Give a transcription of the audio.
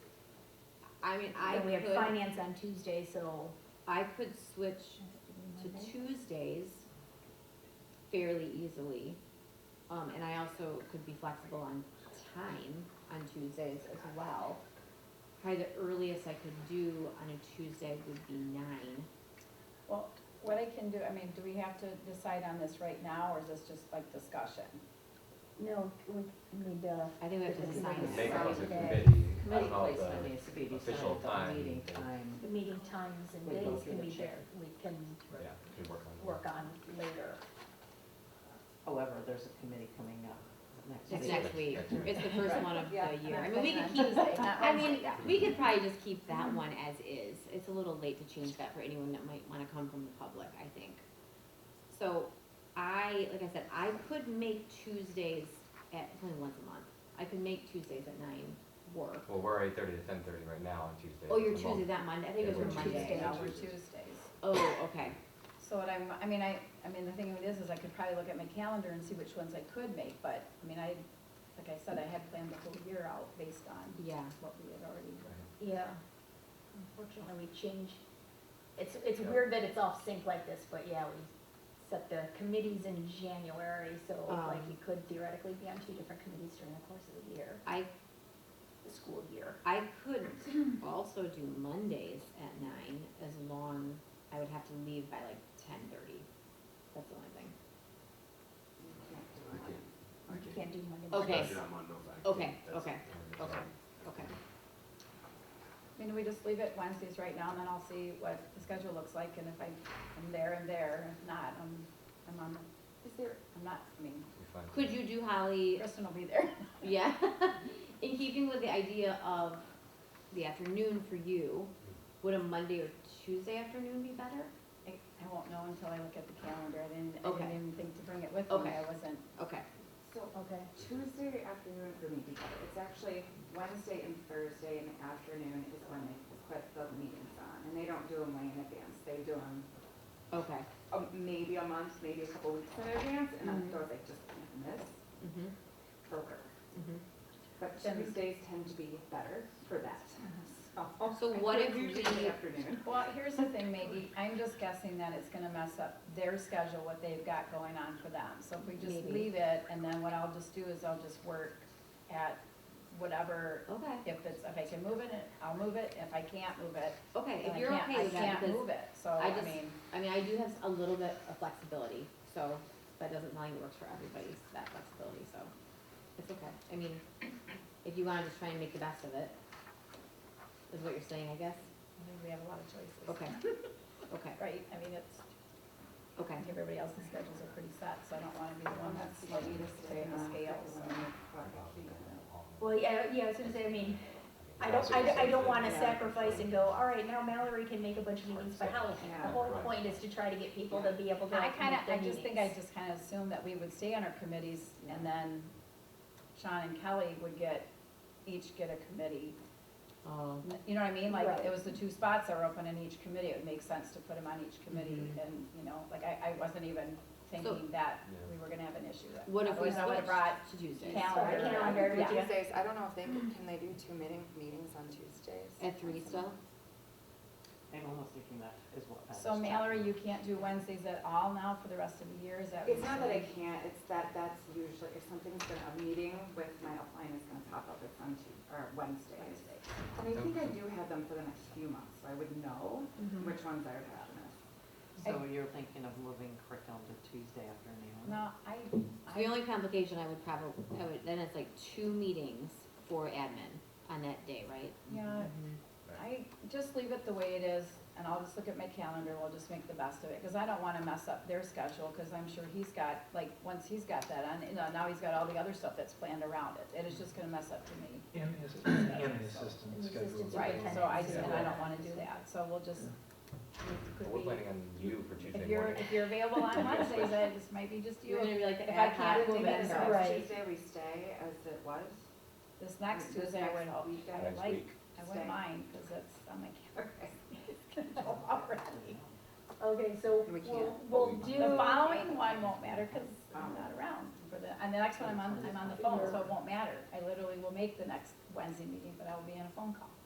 I mean, I Then we have could, finance on Tuesday, so. I could switch to Tuesdays fairly easily. Um, and I also could be flexible on time on Tuesdays as well. Probably the earliest I could do on a Tuesday would be nine. Well, what I can do, I mean, do we have to decide on this right now, or is this just like discussion? No, we need, uh, I think we have to It's decide. nice. Make it as a Friday. committee, I Committee don't know placement the, needs to be decided, official the time. meeting time. the meeting times and We go days through can the be there, chair. we can yeah, we can work on that. work on later. However, there's a committee coming up next It's week. next week. Next week. It's the first one of the Yeah, year. not I mean, we could Wednesday, keep, not I mean, Wednesday. we could probably just keep that one as is. It's a little late to change that for anyone that might wanna come from the public, I think. So I, like I said, I could make Tuesdays at, it's only once a month. I could make Tuesdays at nine work. Well, we're eight thirty to ten thirty right now on Tuesday. Oh, you're Tuesday that Monday? I think it Yeah, was your we're Tuesday. Monday. Now, we're Tuesdays. Tuesdays. Oh, okay. So what I'm, I mean, I, I mean, the thing of it is, is I could probably look at my calendar and see which ones I could make, but, I mean, I, like I said, I had planned the whole year out based on Yeah. what we had already. Yeah, unfortunately, we change, it's, it's Yeah. weird that it's off sync like this, but yeah, we set the committees in January, so like Um. you could theoretically be on two different committees during the course of the year, I, the school year. I could also do Mondays at nine as long, I would have to leave by like ten thirty. That's the only thing. I can't, I You can't. can't do Monday. Okay. mornings. Especially on Mondays, I can't. Okay, That's- okay, okay, uh, okay. I mean, do we just leave it Wednesdays right now, and then I'll see what the schedule looks like, and if I am there, I'm there, if not, I'm, I'm on, the- is there, I'm not, I mean, We find- Could you do Holly, Kristen will be there. yeah, in keeping with the idea of the afternoon for you, would a Monday or Tuesday afternoon be better? I, I won't know until I look at the calendar, I didn't, I Okay. didn't even think to bring it with me, Okay. I wasn't, Okay, So Okay, Tuesday afternoon for me, because it's actually Wednesday and Thursday in the afternoon is when they put the meetings on. And they don't do them way in advance, they do them okay, maybe a month, maybe a couple weeks in advance, and Mhm. then those like just miss mhm, broker. mhm. But Then- Tuesdays tend to be better for that. So I what think if usually we- Afternoon. Well, here's the thing, Maggie, I'm just guessing that it's gonna mess up their schedule, what they've got going on for them. So if we just Maybe. leave it, and then what I'll just do is I'll just work at whatever, Okay, if it's, if I can move it, I'll move it, if I can't move it, okay, then if I you're can't, okay I with that, can't move because, it, so, I I just- mean, I mean, I do have a little bit of flexibility, so that doesn't mean it works for everybody, that flexibility, so it's okay. I mean, if you wanna just try and make the best of it, is what you're saying, I guess? I think we have a lot of choices. Okay, okay, Right, I mean, it's, okay. I think everybody else's schedules are pretty set, so I don't wanna be the one that's like, swaying the scales, so. well, yeah, yeah, I was gonna say, I mean, I don't, I, don't- I don't wanna sacrifice and go, all right, now Mallory can make a bunch of meetings by Halloween. The Yeah. whole point is to try to get people to be able to I make kinda, the I just think I meetings. just kinda assumed that we would stay on our committees, and then Sean and Kelly would get, each get a committee. Oh, You know what I mean? Like, Right. it was the two spots that were open in each committee, it would make sense to put them on each committee, Mhm. and, you know, like, I, I wasn't even thinking that we were gonna have an issue. with- what if we Otherwise, I would've switched brought to Tuesdays? calendar. Sorry, calendar, Yeah. yeah. Tuesdays, I don't know if they, can can they do two meeting, meetings on Tuesdays? At three still? I'm almost thinking that is what. I So was Mallory, thinking. you can't do Wednesdays at all now for the rest of the year, is that what It's you're not that I saying? can't, it's that that's usually, if something's gonna, a meeting with my upline is gonna pop up, it's on Tuesday, or Wednesdays. And I think I do have them for the next few months, so I would know Mhm. which ones I would have missed. So you're thinking of moving curriculum to Tuesday afternoon? No, I, The I, only complication I would probably, I would, then it's like two meetings for admin on that day, right? yeah, I just leave it the way it is, and I'll just look at my calendar, we'll just make the best of it, because I don't wanna mess up their schedule, because I'm sure he's got, like, once he's got that on, you know, now he's got all the other stuff that's planned around it, it is just gonna mess up to me. And his, and his assistant And the schedule. assistant Right, so I just, Yeah. and I don't wanna do that, so we'll just, But could We're we, planning on you for Tuesday if you're, morning. if you're available on Wednesdays, then this might be just You're you, gonna be like the If I ad can't hoc move it, Maybe woman, this so- so- Right. Tuesday we stay as it was. this next This Tuesday, I next would, I weekend. would Next like, week. I wouldn't Stay. mind, because it's on my calendar. Okay. already. Okay, so We we'll, can't. we'll We do. The following one won't matter because I'm not around for the, and the next one I'm on, I'm on the phone, so it won't matter. I literally will make the next Wednesday meeting, but I will be on a phone call.